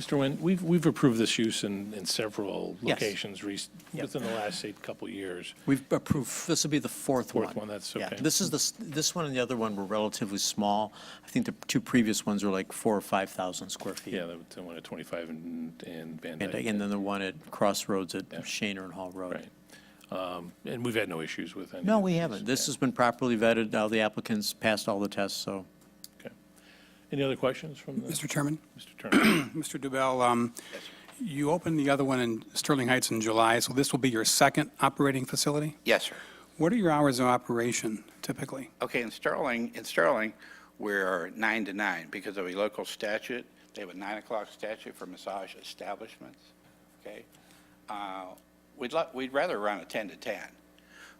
Mr. Nguyen, we've, we've approved this use in, in several Yes. locations rec- Yep. within the last, say, couple years. We've approved, this will be the fourth one. Fourth one, that's Yeah, okay. This is the, s- this one and the other one were relatively small. I think the two previous ones were like four or 5,000 square feet. Yeah, the the one at 25 and, and Van And Dyke. and then the one at Crossroads at Yeah. Shaner and Hall Road. Right. Um, And we've had no issues with any. No, of we these. haven't. This has been properly vetted. All the applicants passed all the tests, so. Okay. Any other questions from the, Mr. Mr. Chairman, Turner? Mr. Dubell, um, you opened the other one in Sterling Heights in July, so this will be your second operating facility? Yes, sir. What are your hours of operation typically? Okay, in Sterling, in Sterling, we're nine to nine because of a local statute. They have a nine o'clock statute for massage establishments, okay? Uh, We'd lo- we'd rather run a 10 to 10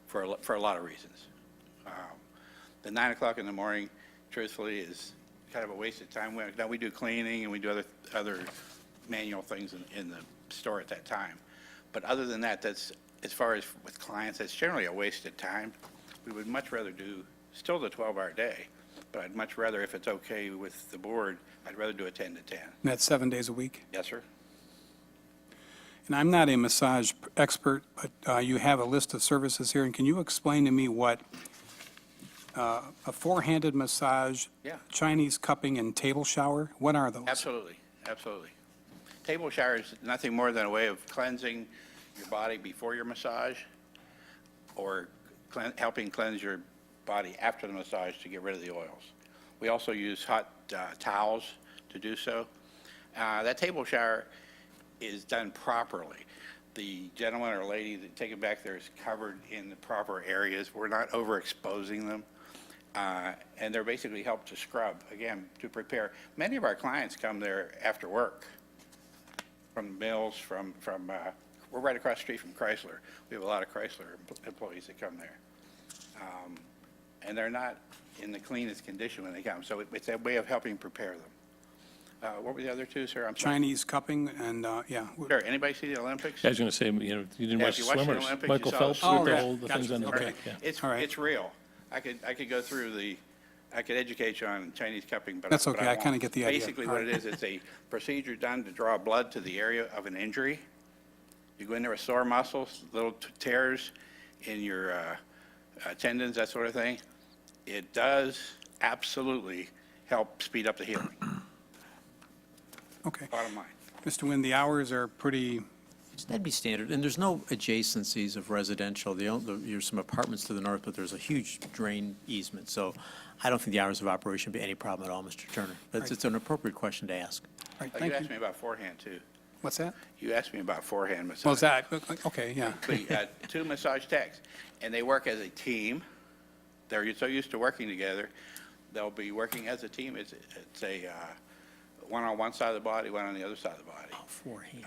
for, a lo- for a lot of reasons. Um, The nine o'clock in the morning, truthfully, is kind of a waste of time. We- Now, we do cleaning and we do other, other manual things in, in the store at that time. But other than that, that's, as far as with clients, that's generally a waste of time. We would much rather do still the 12-hour day, but I'd much rather, if it's okay with the board, I'd rather do a 10 to 10. And that's seven days a week? Yes, sir? And I'm not a massage p- expert, but uh, you have a list of services here, and can you explain to me what uh, a four-handed massage, Yeah. Chinese cupping, and table shower, what are those? Absolutely, absolutely. Table shower is nothing more than a way of cleansing your body before your massage or clean- helping cleanse your body after the massage to get rid of the oils. We also use hot uh, towels to do so. Uh, That table shower is done properly. The gentleman or lady that take it back there is covered in the proper areas. We're not overexposing them. Uh, And they're basically helped to scrub, again, to prepare. Many of our clients come there after work from Mills, from, from, uh, we're right across the street from Chrysler. We have a lot of Chrysler empl- employees that come there. Um, And they're not in the cleanest condition when they come, so it- it's a way of helping prepare them. Uh, What were the other two, sir? I'm sorry. Chinese cupping and, uh, yeah. w- Sure, anybody see the Olympics? I was going to say, you know, you didn't Yeah, watch if you watched the swimmers. Olympics, you Michael saw the Phelps swimmers. with the Oh, whole, yeah. the things on the Gotcha. back. Okay. yeah. It's, All right. it's real. I could, I could go through the, I could educate you on Chinese cupping, but. That's but okay. I won't. kinda get the idea. Basically, All what it right. is, it's a procedure done to draw blood to the area of an injury. You go in there with sore muscles, little t- tears in your uh, uh, tendons, that sort of thing. It does absolutely help speed up the healing, Okay. bottom line. Mr. Nguyen, the hours are pretty, That'd be standard, and there's no adjacencies of residential. The on- the- There's some apartments to the north, but there's a huge drain easement, so I don't think the hours of operation would be any problem at all, Mr. Turner. But it's an appropriate question to ask. all right, Uh, thank You asked you. me about forehand, too. What's that? You asked me about forehand massage. Well, is that, uh, okay, yeah. the, uh, two massage techs, and they work as a team. They're so used to working together, they'll be working as a team. It's, it's a, uh, one on one side of the body, one on the other side of the body. Beforehand.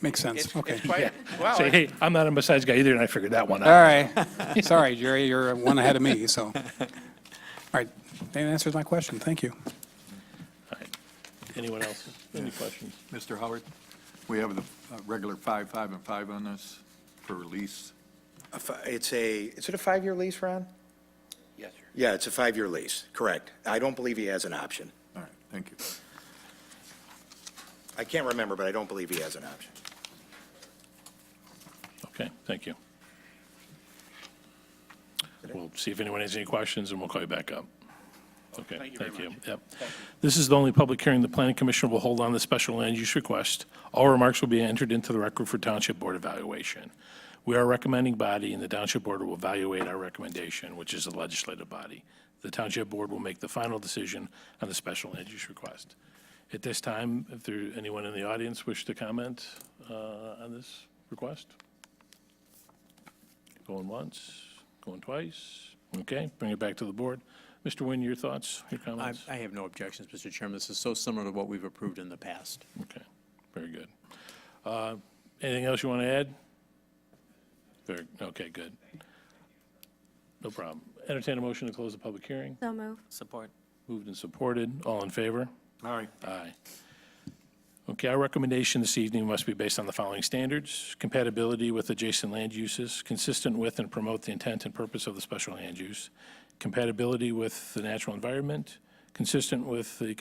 Makes It's, sense, okay. it's quite, well, Say, it's- hey, I'm not a massage guy either, and I figured that one All Uh, out. right. Sorry, Jerry, you're one ahead of me, so. All right, that answers my question. Thank you. Anyone else? Any questions? Mr. Howard, we have the uh, regular five, five, and five on this for release. A fi- It's a, is it a five-year lease, Ron? yes, sir. Yeah, it's a five-year lease, correct. I don't believe he has an option. All right, thank you. I can't remember, but I don't believe he has an option. Okay, thank you. We'll see if anyone has any questions, and we'll call you back up. Okay, Thank you very thank you. much. Yep. This is the only public hearing the planning commission will hold on the special land use request. All remarks will be entered into the record for township board evaluation. We are a recommending body, and the township board will evaluate our recommendation, which is the legislative body. The township board will make the final decision on the special land use request. At this time, if there, anyone in the audience wish to comment uh, on this request? Going once, going twice. Okay, bring it back to the board. Mr. Nguyen, your thoughts, your I comments? I have no objections, Mr. Chairman. This is so similar to what we've approved in the past. Okay, very good. Uh, Anything else you want to add? Very, okay, good. No problem. Entertain a motion to close the public hearing. So move. Support. Moved and supported. All in favor? All right. Aye. Okay, our recommendation this evening must be based on the following standards: compatibility with adjacent land uses, consistent with and promote the intent and purpose of the special land use, compatibility with the natural environment, consistent with the